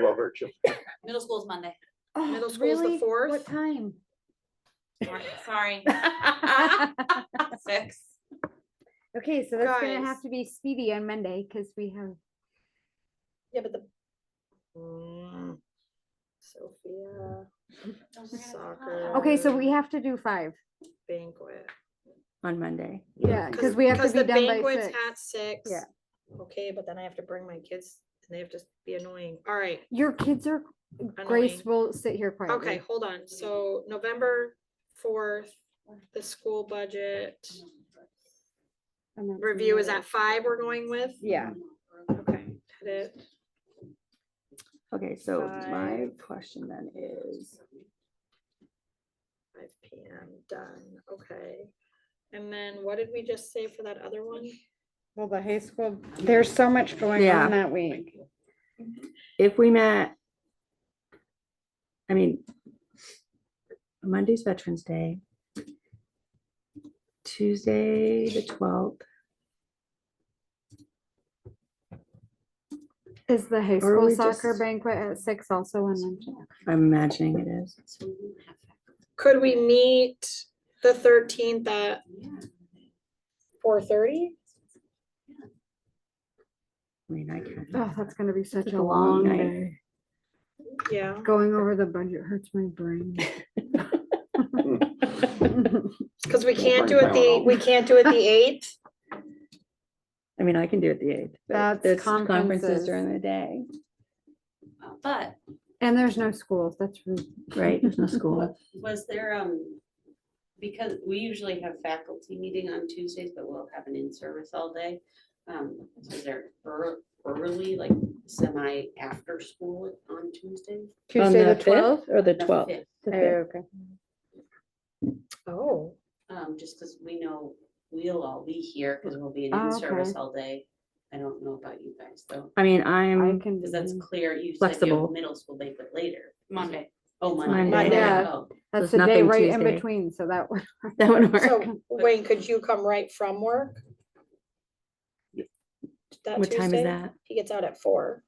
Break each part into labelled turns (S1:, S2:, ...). S1: virtue.
S2: Middle school is Monday.
S3: Oh,
S4: Middle school's the
S3: really?
S4: fourth.
S3: What time?
S2: Sorry- Sorry,
S4: Ah,
S2: six.
S3: Okay, so that's gonna
S4: Guys.
S3: have to be speedy on Monday, cause we have,
S4: Yeah, but the. Mm, Sophia Soccer.
S3: okay, so we have to do five.
S4: banquet.
S5: on Monday.
S3: Yeah, cause we have to
S4: Because
S3: be
S4: the
S3: done by
S4: banquet's
S3: six.
S4: at six.
S3: Yeah.
S4: Okay, but then I have to bring my kids and they have to be annoying. All right.
S3: Your kids are,
S4: annoying.
S3: Grace will sit here
S4: Okay,
S3: quietly.
S4: hold on. So November fourth, the school budget
S3: and that's
S4: review is
S3: another-
S4: at five we're going with?
S3: Yeah,
S4: Okay. hit it.
S5: Okay, so my
S4: Five.
S5: question then is,
S4: Five P M, done, okay. And then what did we just say for that other one?
S6: Well, the high school, there's so much going
S5: Yeah.
S6: on that week.
S5: if we met, I mean, Monday's Veterans Day. Tuesday, the twelfth,
S3: is the high
S5: Or
S3: school
S5: we
S3: soccer
S5: just-
S3: banquet at six also on Monday?
S5: I'm imagining it is.
S4: Could we meet the thirteenth at four thirty?
S5: I mean, I can't.
S3: Oh, that's gonna be such
S5: It's
S3: a long
S5: night.
S3: day.
S4: Yeah,
S3: Going over the budget hurts my brain.
S4: cause we can't do
S1: bring
S4: it the,
S1: Tylenol.
S4: we can't do it the eighth.
S5: I mean, I can do it the eighth.
S3: That's conferences.
S5: Conferences during the day,
S2: But
S3: And there's no schools, that's rude.
S5: right? There's no school.
S7: Was there, um, because we usually have faculty meeting on Tuesdays, but we'll have an in-service all day. Um, is there ear- early, like semi after school on Tuesdays?
S5: On
S6: Tuesday the
S5: fifth
S6: twelfth?
S5: Or the
S7: The
S5: twelfth.
S7: fifth,
S6: Okay.
S4: Oh,
S7: Um, just because we know we'll all be here because we'll be in
S3: Oh,
S7: in-service
S3: okay.
S7: all day. I don't know about you guys though,
S5: I mean,
S3: I
S5: I'm,
S3: can.
S7: because
S3: do
S7: that's
S3: that.
S7: clear. You said you
S5: Flexible.
S7: have middle school banquet later.
S2: Monday.
S7: Oh, Monday.
S5: Monday.
S3: Yeah.
S7: Oh,
S3: That's
S5: there's
S3: the day
S5: nothing
S3: right in
S5: Tuesday.
S3: between, so that would.
S5: that would work.
S4: so Wayne, could you come right from work? That
S5: What time is
S4: Tuesday?
S5: that?
S4: He gets out at four.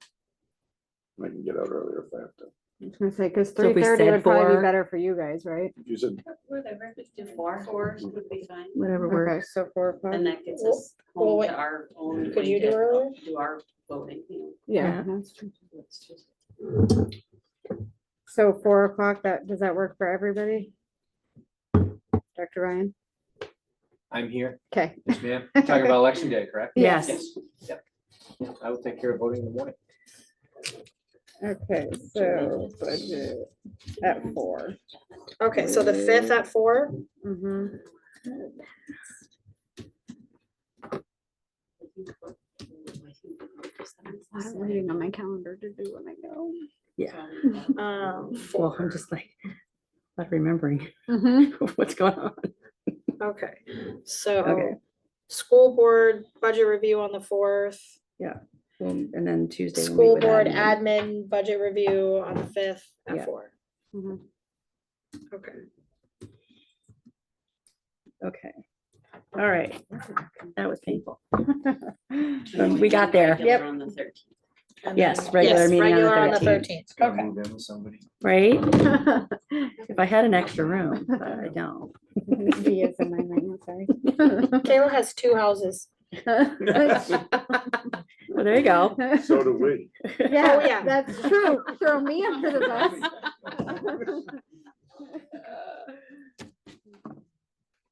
S1: I can get out earlier if I have to.
S3: I was gonna say, cause
S5: So
S3: three
S5: if we
S3: thirty
S5: said
S3: would probably be
S5: four-
S3: better for you guys, right?
S1: You said
S7: Whatever, four, four would be fine.
S5: Whatever
S3: Okay.
S5: works.
S6: So four o'clock.
S7: And that gets
S4: Well-
S7: us
S4: well,
S7: home
S4: wait.
S7: to our own.
S4: Could you
S7: way to
S4: do earlier?
S7: Do our voting, you
S3: Yeah.
S5: Yeah.
S3: that's true.
S7: know. it's just-
S6: So four o'clock, that,
S3: Does that work for everybody? Dr. Ryan?
S8: I'm here,
S3: Okay.
S8: yes, ma'am. Talking about election day, correct?
S5: Yes.
S8: Yep. Yeah, I will take care of voting in the morning.
S6: okay, so budget at four.
S4: Okay, so the fifth
S5: Mm.
S4: at four?
S3: Mm-hmm. I'm waiting on my calendar to do when I go.
S4: Um,
S5: Well, I'm just like, not remembering
S3: Mm-hmm.
S5: what's going on.
S4: okay,
S5: Okay.
S4: so, school board budget review on the fourth.
S5: Um, And then Tuesday. we meet
S4: School
S5: with
S4: board
S5: admin.
S4: admin budget review on the fifth
S5: Yeah.
S4: at four.
S3: Mhm.
S4: Okay,
S5: Okay. All right. That was painful. Um, We got there,
S7: Regular On the thirteenth.
S4: and
S5: Yes,
S4: then-
S5: regular
S4: yes,
S5: meeting on the
S4: regular
S5: 13th.
S8: Gotta move in with somebody.
S5: right?
S3: Mm-hmm.
S5: If I had an extra room, but I don't.
S3: He is in my mind, sorry.
S4: Kayla has two houses.
S5: Well, there you go.
S1: so do we.
S3: Oh, Yeah,
S4: yeah.
S3: that's true. Throw me under the bus.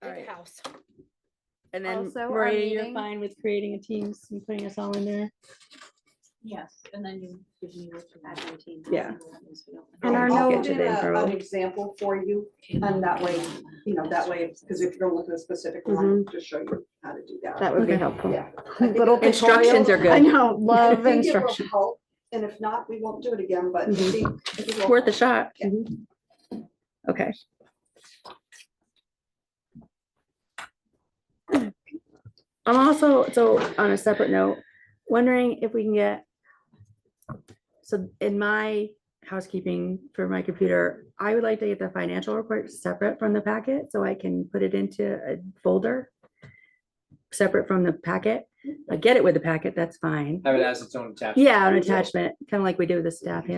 S5: All right.
S4: house.
S5: And then
S3: Also, our
S5: Maria, you're
S3: meeting-
S5: fine with creating a Teams and putting us all in there?
S2: Yes, and then you give me what you have on team.
S5: Yeah.
S3: And our
S5: I'll
S3: no-
S5: get you the info.
S9: uh, An example for you, and that way, you know, that way, because if you're looking at a specific
S5: Mm-hmm.
S9: one, just show you how to do that.
S3: That would be
S5: Okay.
S3: helpful.
S9: Yeah. I think
S3: Little
S9: it-
S5: Instructions are
S3: I
S5: good.
S3: know,
S9: I
S3: love
S9: think it will
S3: instruction.
S9: help, And if not, we won't do it again, but.
S5: Mhm.
S9: see, if it will
S5: It's worth a
S9: help.
S5: shot. Okay. I'm also, so on a separate note, wondering if we can get. So in my housekeeping for my computer, I would like to get the financial report separate from the packet so I can put it into a folder. Separate from the packet. I get it with the packet, that's fine.
S8: Have it as its own attachment.
S5: Yeah, an
S8: There you go.
S5: attachment, kind of like we do with the staff handbook.